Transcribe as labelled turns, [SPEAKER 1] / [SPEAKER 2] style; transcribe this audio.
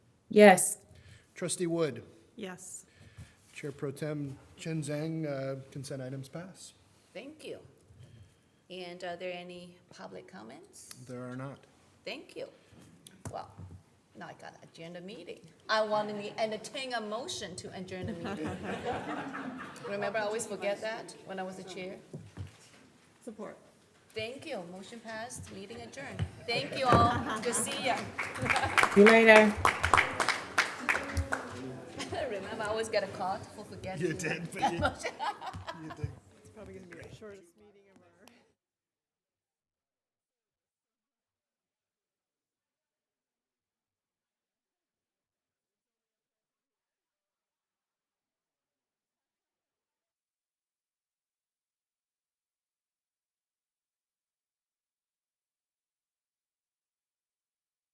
[SPEAKER 1] Yes.
[SPEAKER 2] Trustee Wood,
[SPEAKER 3] Yes.
[SPEAKER 2] Chair Pro Tem Chen Zhang, uh, consent items pass.
[SPEAKER 4] Thank you. And are there any public comments?
[SPEAKER 2] There are not.
[SPEAKER 4] Thank you. Well, now I got to adjourn the meeting. I want to entertain a motion to adjourn the meeting. Remember, I always forget that when I was a chair.
[SPEAKER 3] Support.
[SPEAKER 4] Thank you. Motion passed, meeting adjourned. Thank you all. Good to see you.
[SPEAKER 1] See you later.
[SPEAKER 4] Remember, I always get a call for forgetting.
[SPEAKER 2] You did, but you-
[SPEAKER 3] It's probably going to be the shortest.